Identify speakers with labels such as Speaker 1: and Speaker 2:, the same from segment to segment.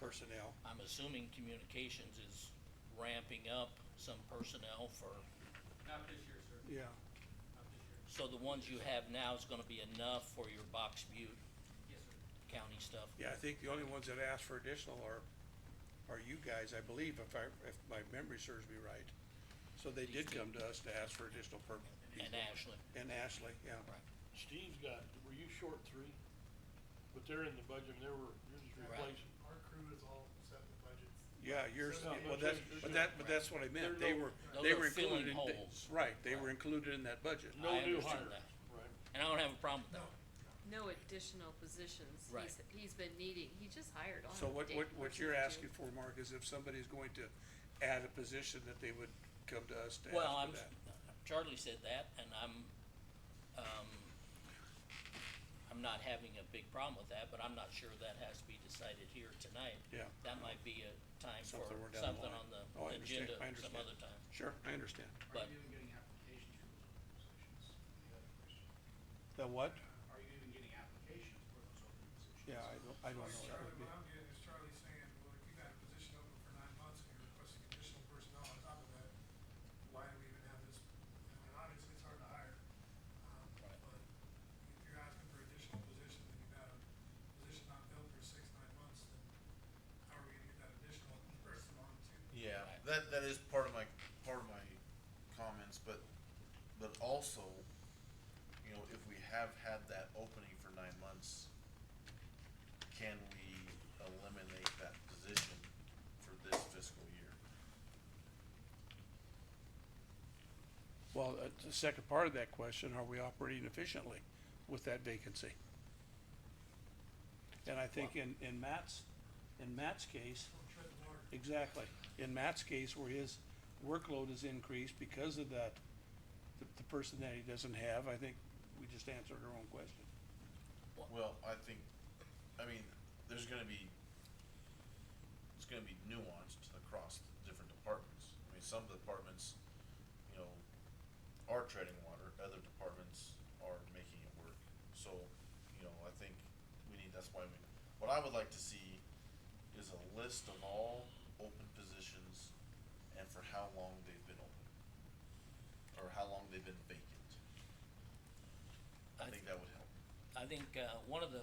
Speaker 1: personnel.
Speaker 2: I'm assuming communications is ramping up some personnel for,
Speaker 3: Not this year, sir,
Speaker 1: Yeah,
Speaker 3: not this year.
Speaker 2: so the ones you have now is gonna be enough for your Box Butte
Speaker 3: Yes, sir.
Speaker 2: County stuff?
Speaker 1: yeah, I think the only ones that asked for additional are, are you guys, I believe, if I, if my memory serves me right. So they did come to us to ask for additional per,
Speaker 2: And Ashland,
Speaker 1: and Ashley, yeah.
Speaker 2: right,
Speaker 4: Steve's got, were you short three? But they're in the budget and they were, you're just
Speaker 2: Right.
Speaker 4: replacing.
Speaker 5: Our crew is all set in the budget.
Speaker 1: Yeah, yours,
Speaker 4: No,
Speaker 1: well,
Speaker 4: but
Speaker 1: that's,
Speaker 4: there's-
Speaker 1: but
Speaker 4: there's
Speaker 1: that, but
Speaker 2: no-
Speaker 1: that's what I meant, they
Speaker 4: There are no-
Speaker 1: were,
Speaker 2: Those
Speaker 1: they
Speaker 2: are
Speaker 1: were included in,
Speaker 2: filling holes.
Speaker 1: they- right, they were
Speaker 2: Right.
Speaker 1: included in that budget.
Speaker 4: No
Speaker 2: I
Speaker 4: new
Speaker 2: understand
Speaker 4: hire,
Speaker 2: that.
Speaker 4: right?
Speaker 2: and I don't have a problem with that.
Speaker 6: no additional positions.
Speaker 2: Right.
Speaker 6: He's- He's been needing, he just hired on.
Speaker 1: So what,
Speaker 6: day
Speaker 1: what,
Speaker 6: one,
Speaker 1: what
Speaker 6: two,
Speaker 1: you're
Speaker 6: two.
Speaker 1: asking for, Mark, is if somebody's going to add a position that they would come to us to ask for that.
Speaker 2: Well, I'm, Charlie said that, and I'm, um, I'm not having a big problem with that, but I'm not sure that has to be decided here tonight.
Speaker 1: Yeah.
Speaker 2: That might be a time for
Speaker 1: Something we're down the
Speaker 2: something
Speaker 1: line.
Speaker 2: on the
Speaker 1: Oh, I understand,
Speaker 2: agenda
Speaker 1: I
Speaker 2: some
Speaker 1: understand.
Speaker 2: other time.
Speaker 1: Sure, I understand.
Speaker 2: But-
Speaker 5: Are you even getting applications for those open positions? The other question.
Speaker 1: The what?
Speaker 5: Are you even getting applications for those open positions?
Speaker 1: Yeah, I don't, I don't know. That
Speaker 7: Charlie,
Speaker 1: would be-
Speaker 7: what I'm getting is Charlie saying, well, if you got a position open for nine months and you're requesting additional personnel on top of that, why do we even have this? I mean, obviously, it's hard to hire. um,
Speaker 2: Right.
Speaker 7: But if you're asking for additional positions and you've got a position not filled for six, nine months, then how are we gonna get that additional person on to?
Speaker 8: Yeah,
Speaker 2: Right.
Speaker 8: that, that is part of my, part of my comments, but, but also, you know, if we have had that opening for nine months, can we eliminate that position for this fiscal year?
Speaker 1: Well, uh, the second part of that question, are we operating efficiently with that vacancy? And I think in, in Matt's, in Matt's case,
Speaker 7: Don't tread the water.
Speaker 1: exactly, in Matt's case where his workload is increased because of that, the, the person that he doesn't have, I think we just answered our own question.
Speaker 8: Well, I think, I mean, there's gonna be, it's gonna be nuanced across the different departments. I mean, some departments, you know, are treading water, other departments are making it work. So, you know, I think we need, that's why we, what I would like to see is a list of all open positions and for how long they've been open. Or how long they've been vacant.
Speaker 2: I
Speaker 8: I think that would help.
Speaker 2: I think, uh, one of the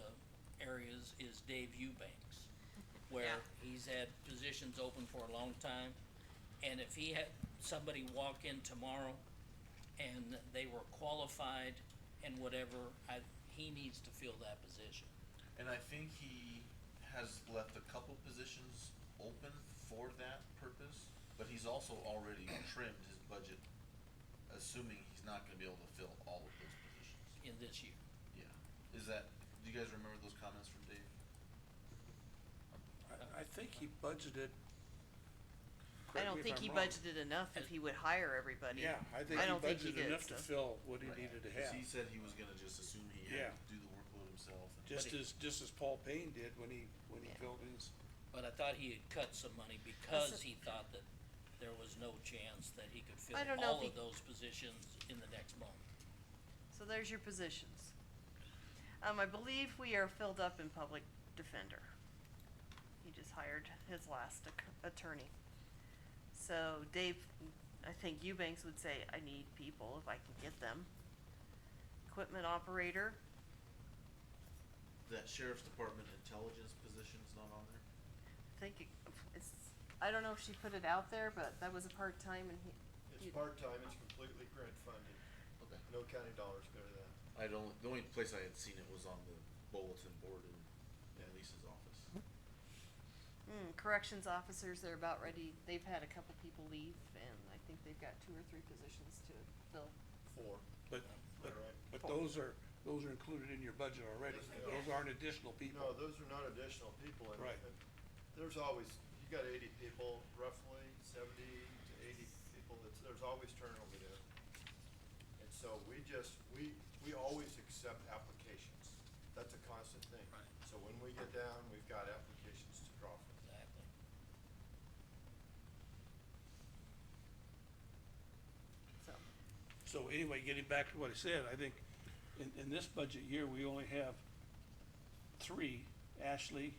Speaker 2: areas is Dave Eubanks, where
Speaker 6: Yeah.
Speaker 2: he's had positions open for a long time. And if he had somebody walk in tomorrow and they were qualified and whatever, I, he needs to fill that position.
Speaker 8: And I think he has left a couple positions open for that purpose, but he's also already trimmed his budget, assuming he's not gonna be able to fill all of those positions.
Speaker 2: in this year.
Speaker 8: Yeah. Is that, do you guys remember those comments from Dave?
Speaker 1: I, I think he budgeted.
Speaker 9: I
Speaker 1: correct me
Speaker 9: don't
Speaker 1: if
Speaker 9: think
Speaker 1: I'm
Speaker 9: he
Speaker 1: wrong.
Speaker 9: budgeted enough if he would hire everybody.
Speaker 1: Yeah, I think
Speaker 9: I don't think he
Speaker 1: he budgeted
Speaker 9: did,
Speaker 1: enough to fill
Speaker 9: so.
Speaker 1: what he
Speaker 8: Right.
Speaker 1: needed to have.
Speaker 8: Cause he said he was gonna just assume he
Speaker 1: Yeah.
Speaker 8: had to do the workload himself. and-
Speaker 1: Just
Speaker 2: But he-
Speaker 1: as, just as Paul Payne did when he, when he
Speaker 9: Yeah.
Speaker 1: filled his,
Speaker 2: But I thought he had cut some money because he thought that there was no chance that he could fill
Speaker 9: I don't know
Speaker 2: all
Speaker 9: if
Speaker 2: of
Speaker 9: he-
Speaker 2: those positions in the next month.
Speaker 9: So there's your positions. Um, I believe we are filled up in public defender. He just hired his last ac- attorney. So Dave, I think Eubanks would say, I need people if I can get them. Equipment operator,
Speaker 8: That sheriff's department intelligence position's not on there?
Speaker 9: I think it- it's, I don't know if she put it out there, but that was a part-time and he.
Speaker 10: It's part-time, it's completely grant funded,
Speaker 8: Okay.
Speaker 10: no county dollars go to that.
Speaker 8: I don't, the only place I had seen it was on the bulletin board in in Lisa's office.
Speaker 9: Mm, corrections officers, they're about ready, they've had a couple people leave and I think they've got two or three positions to fill.
Speaker 10: Four.
Speaker 1: but, but,
Speaker 10: Alright.
Speaker 1: but those are, those are included in your budget already.
Speaker 10: Yes, they are.
Speaker 1: Those aren't additional people.
Speaker 10: No, those are not additional people and.
Speaker 1: Right.
Speaker 10: and There's always, you got eighty people, roughly seventy to eighty people, that's, there's always turnover there. And so we just, we, we always accept applications. That's a constant thing.
Speaker 2: Right.
Speaker 10: So when we get down, we've got applications to draw from.
Speaker 2: Exactly.
Speaker 9: So,
Speaker 1: So anyway, getting back to what I said, I think in, in this budget year, we only have three, Ashley,